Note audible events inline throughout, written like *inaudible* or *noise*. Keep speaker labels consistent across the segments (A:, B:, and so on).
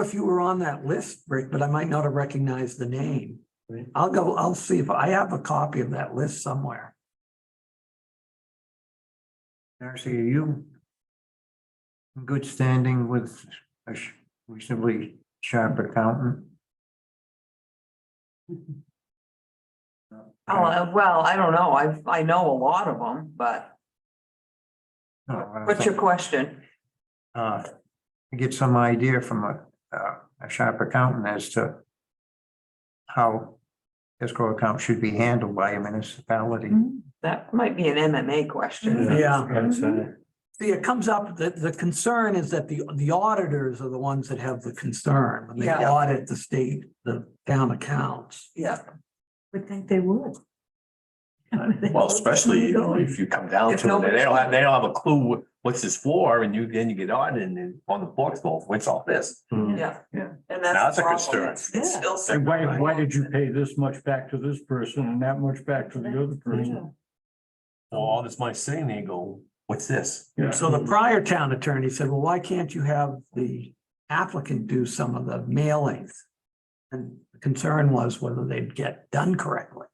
A: if you were on that list, Rick, but I might not have recognized the name.
B: Right.
A: I'll go, I'll see if I have a copy of that list somewhere.
B: Darcy, are you in good standing with a sh- reasonably sharp accountant?
C: Oh, uh, well, I don't know. I, I know a lot of them, but
B: No, I
C: what's your
B: don't-
C: question?
B: uh, to Get some idea from a, uh, a sharp accountant as to how escrow accounts should be handled by a municipality.
C: That might be an MMA question.
A: Yeah.
B: That's,
D: Mm-hmm.
B: uh,
A: See, it comes up, the, the concern is that the, the auditors are the ones that have the concern when they
C: Yeah.
A: audit the state, the town accounts.
C: Yeah,
D: Would think they would. *laughs*
E: Well, especially you know, if you come down
C: If
E: to it,
C: nobody-
E: they don't have, they don't have a clue wh- what's this for and you, then you get on and then on the books, well, what's all this?
C: yeah.
D: Yeah.
C: And
E: That's
C: that's.
E: a
C: the problem.
E: concern.
C: It's- it's still
F: Say, Why,
C: separate.
F: why did you pay this much back to this person and that much back to the other person?
E: So all this money sitting there, you go, what's this?
F: Yeah.
A: So the prior town attorney said, well, why can't you have the applicant do some of the mailings? And the concern was whether they'd get done correctly.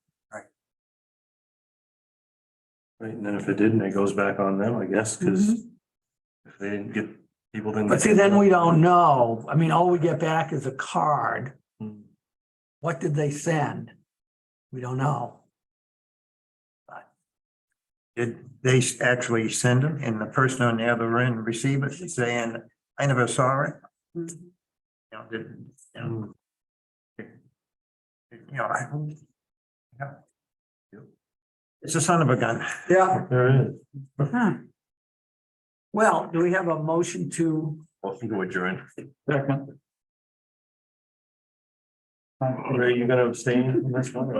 G: Right, and then if it didn't, it goes back on them, I guess, because if they didn't get, people didn't.
A: Mm-hmm. But see, then we don't know. I mean, all we get back is a card.
G: Hmm.
A: What did they send? We don't know.
B: Did they s- actually send them and the person on the other end receive it saying, I never saw it? You know, did, you know. it- it- You know, I. yeah. It's a son of a gun.
A: Yeah.
G: There is.
A: Well, do we have a motion to,
E: Well, you go adjourn.
F: Second. Are you gonna abstain from this one?